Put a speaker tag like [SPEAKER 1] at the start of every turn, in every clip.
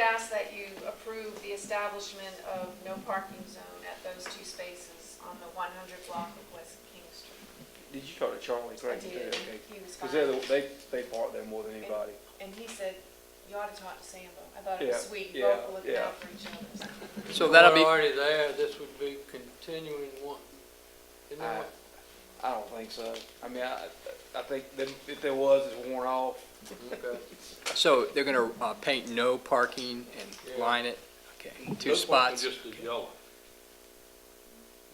[SPEAKER 1] ask that you approve the establishment of no parking zone at those two spaces on the 100 block of West King Street.
[SPEAKER 2] Did you talk to Charlie
[SPEAKER 1] I
[SPEAKER 2] Green?
[SPEAKER 1] did, and he was
[SPEAKER 2] Because they're,
[SPEAKER 1] fine,
[SPEAKER 2] the- they, they park there more than anybody.
[SPEAKER 1] and he said, you ought to talk to Sambo. I thought it was
[SPEAKER 2] Yeah,
[SPEAKER 1] sweet,
[SPEAKER 2] yeah,
[SPEAKER 1] both looking out for each other.
[SPEAKER 3] So that'll
[SPEAKER 4] We're
[SPEAKER 3] be,
[SPEAKER 4] already there, this would be continuing one. Isn't that
[SPEAKER 3] Uh,
[SPEAKER 2] I,
[SPEAKER 4] what-
[SPEAKER 2] Uh, I don't think so. I mean, I, I think that if there was, it's worn off.
[SPEAKER 4] okay.
[SPEAKER 3] so they're gonna uh, paint no parking and
[SPEAKER 4] Yeah.
[SPEAKER 3] line it? Okay, two
[SPEAKER 5] Those ones
[SPEAKER 3] spots.
[SPEAKER 5] are Just the yellow.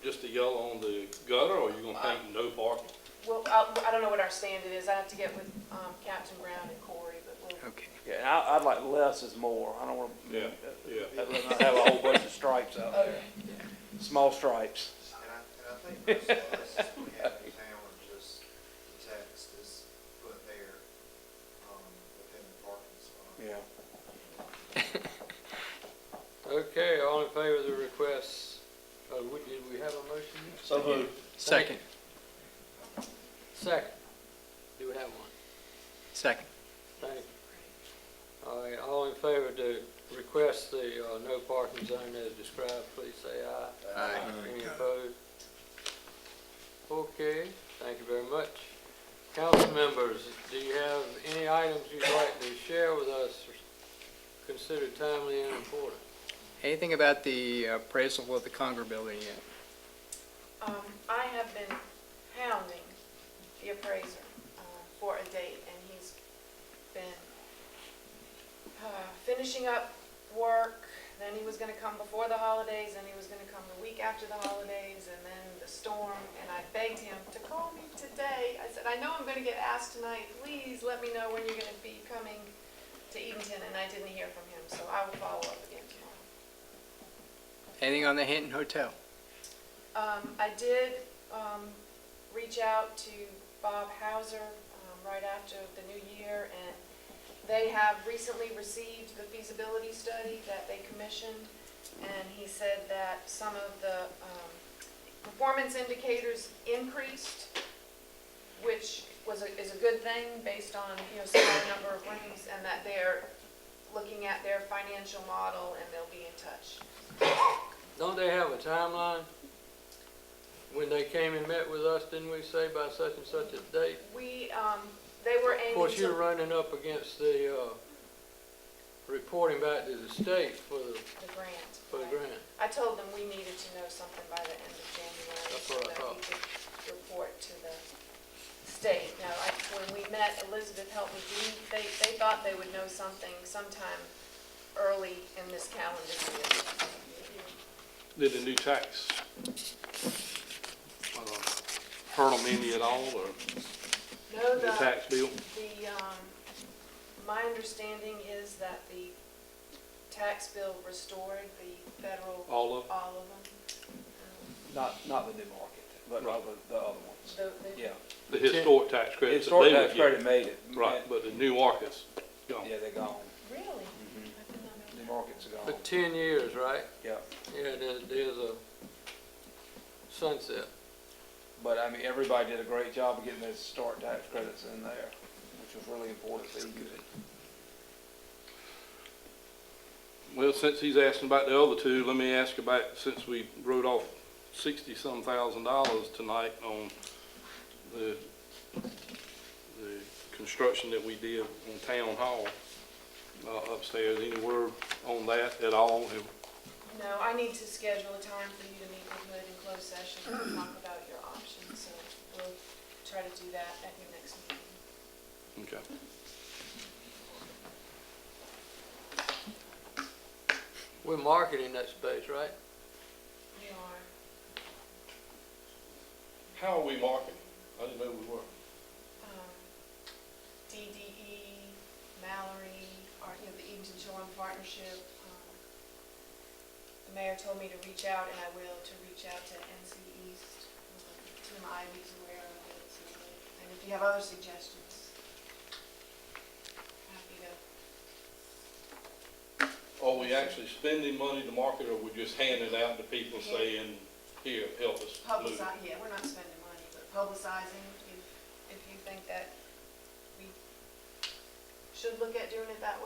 [SPEAKER 5] Just the yellow on the gutter, or you gonna paint no parking?
[SPEAKER 1] Well, I I don't know what our standard is, I have to get with um, Captain Brown and Corey, but we'll,
[SPEAKER 3] Okay.
[SPEAKER 2] Yeah, and I, I'd like less is more. I don't want to.
[SPEAKER 5] Yeah, yeah.
[SPEAKER 2] I'd rather not have a whole bunch of stripes out there.
[SPEAKER 1] Okay.
[SPEAKER 2] Small stripes.
[SPEAKER 6] And I, and I think most of us we have in town are just, the text is put there, um, within the parking spot.
[SPEAKER 2] Yeah.
[SPEAKER 4] Okay, all in favor of the request, uh, we- did we have a motion? yet?
[SPEAKER 2] So who?
[SPEAKER 3] Second,
[SPEAKER 4] Second, do we have one?
[SPEAKER 3] second.
[SPEAKER 4] Thank you. All right, all in favor to request the uh, no parking zone as described, please say aye.
[SPEAKER 3] Aye.
[SPEAKER 4] Any opposed? Okay, thank you very much. Council members, do you have any items you'd like to share with us considered timely and important?
[SPEAKER 3] Anything about the appraisal of the Conger building yet?
[SPEAKER 1] Um, I have been hounding the appraiser uh, for a date, and he's been uh, finishing up work, then he was gonna come before the holidays, and he was gonna come the week after the holidays, and then the storm, and I begged him to call me today. I said, I know I'm gonna get asked tonight, please let me know when you're gonna be coming to Eatonton, and I didn't hear from him, so I will follow up again tomorrow.
[SPEAKER 3] Anything on the Hinton Hotel?
[SPEAKER 1] Um, I did, um, reach out to Bob Hauser, um, right after the new year, and they have recently received the feasibility study that they commissioned, and he said that some of the, um, performance indicators increased, which was a, is a good thing based on, you know, smaller number of rooms, and that they're looking at their financial model, and they'll be in touch.
[SPEAKER 4] Don't they have a timeline? When they came and met with us, didn't we say by such and such a date?
[SPEAKER 1] We, um, they were aiming to.
[SPEAKER 4] Of course, you're running up against the, uh, reporting back to the state for the,
[SPEAKER 1] The grant.
[SPEAKER 4] for the
[SPEAKER 1] right.
[SPEAKER 4] grant.
[SPEAKER 1] I told them we needed to know something by the end of January.
[SPEAKER 4] That's what I
[SPEAKER 1] So that we could report to the state. Now, I, when we met, Elizabeth helped me, do- they, they thought they would know something sometime early in this calendar year.
[SPEAKER 5] Did the new tax uh, hurt them any at all, or
[SPEAKER 1] No,
[SPEAKER 5] the
[SPEAKER 1] the,
[SPEAKER 5] tax bill?
[SPEAKER 1] the, um, my understanding is that the tax bill restored the federal,
[SPEAKER 5] All of,
[SPEAKER 1] all of them. Um,
[SPEAKER 2] Not, not the new market, but rather the other ones.
[SPEAKER 1] The, the
[SPEAKER 2] Yeah.
[SPEAKER 5] the historic tax
[SPEAKER 2] The
[SPEAKER 5] credits that
[SPEAKER 2] historic
[SPEAKER 5] they would
[SPEAKER 2] tax
[SPEAKER 5] get?
[SPEAKER 2] credit made it.
[SPEAKER 5] Right, but the new markets, gone.
[SPEAKER 2] Yeah, they're gone.
[SPEAKER 1] Really?
[SPEAKER 2] Mhm.
[SPEAKER 5] Mm-hmm.
[SPEAKER 1] I did not know that.
[SPEAKER 2] New markets are
[SPEAKER 4] For
[SPEAKER 2] gone.
[SPEAKER 4] ten years, right?
[SPEAKER 2] Yeah.
[SPEAKER 4] Yeah, there's, there's a sunset.
[SPEAKER 2] But I mean, everybody did a great job of getting those historic tax credits in there, which was really important. That's good.
[SPEAKER 5] Well, since he's asking about the other two, let me ask about, since we wrote off sixty-some thousand dollars tonight on the, the construction that we did on Town Hall uh, upstairs, any word on that at all? Have-
[SPEAKER 1] No, I need to schedule a time for you to meet with Hood in closed session and talk about your options, so we'll try to do that at your next meeting.
[SPEAKER 5] Okay.
[SPEAKER 4] We're marketing that space, right?
[SPEAKER 1] You are,
[SPEAKER 5] How are we marketing? I didn't know we were.
[SPEAKER 1] um, DDE, Mallory, or, you know, the Eaton Shoreline Partnership. um, The mayor told me to reach out, and I will, to reach out to NC East, um, Tim Ivy's aware of it, so, and if you have other suggestions, happy to
[SPEAKER 5] Are we actually spending money to market, or we just handing out to people saying, here, help us move?
[SPEAKER 1] Publicize, yeah, we're not spending money, but publicizing, if, if you think that we should look at doing it that way.